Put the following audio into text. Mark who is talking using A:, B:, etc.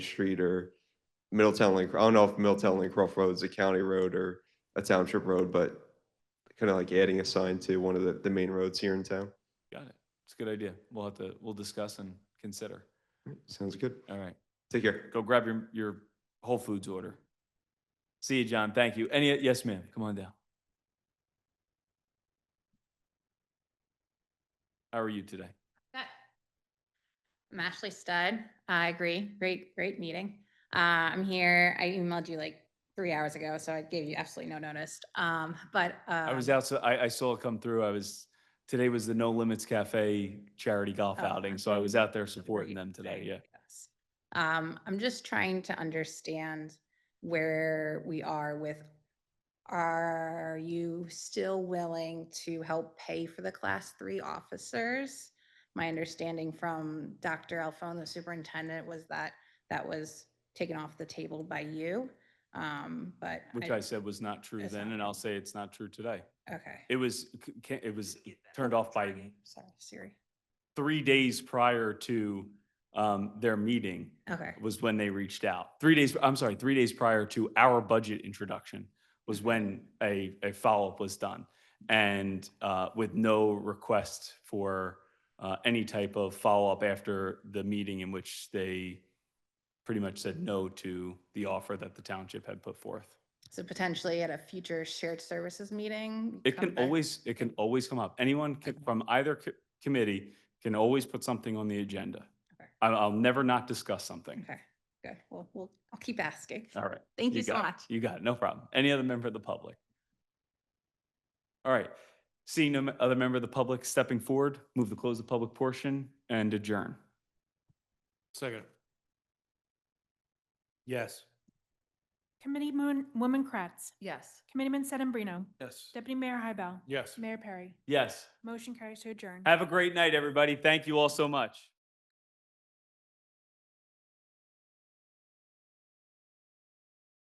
A: Street or Middletown Lake, I don't know if Middletown Lake Croft Road is a county road or a township road, but kind of like adding a sign to one of the, the main roads here in town.
B: Got it. It's a good idea. We'll have to, we'll discuss and consider.
A: Sounds good.
B: All right.
A: Take care.
B: Go grab your, your Whole Foods order. See you, John. Thank you. Any, yes, ma'am. Come on down. How are you today?
C: That- I'm Ashley Stud. I agree. Great, great meeting. Uh, I'm here. I emailed you like three hours ago, so I gave you absolutely no notice. Um, but, uh.
B: I was out, so I, I saw it come through. I was, today was the No Limits Cafe charity golf
C: Oh,
B: outing, so I was out there supporting
C: great,
B: them today.
C: great,
B: Yeah.
C: yes. Um, I'm just trying to understand where we are with, are you still willing to help pay for the class three officers? My understanding from Dr. Alphone, the superintendent, was that that was taken off the table by you. Um, but.
B: Which I said was not true
C: It's
B: then,
C: not
B: and I'll
C: true.
B: say it's not true today.
C: Okay.
B: It was, c- ca- it was turned off by
C: Sorry, Siri.
B: three days prior to um, their meeting
C: Okay,
B: was when they reached out. Three days, I'm sorry, three days prior to our budget introduction was when a, a follow-up was done. And uh, with no request for uh, any type of follow-up after the meeting in which they pretty much said no to the offer that the township had put forth.
C: so potentially at a future shared services meeting.
B: It
C: come
B: can
C: back-
B: always, it can always come up. Anyone ca- from either co- committee can always put something on the agenda.
C: Okay.
B: I'll, I'll never not discuss something.
C: Okay, good. Well, we'll, I'll keep asking.
B: All right.
C: Thank you so
B: got it.
C: much.
B: Uh, You got it. No problem. Any other member of the public? All right. Seeing no m- other member of the public stepping forward, move to close the public portion and adjourn.
D: Second. Yes.
E: Committee Moon, Woman Kratz.
C: Yes.
E: Committeeman Sedambrino.
D: Yes.
E: Deputy Mayor Hybel.
D: Yes.
E: Mayor Perry.
B: Yes.
E: Motion carries to adjourn.
B: Have a great night, everybody. Thank you all so much.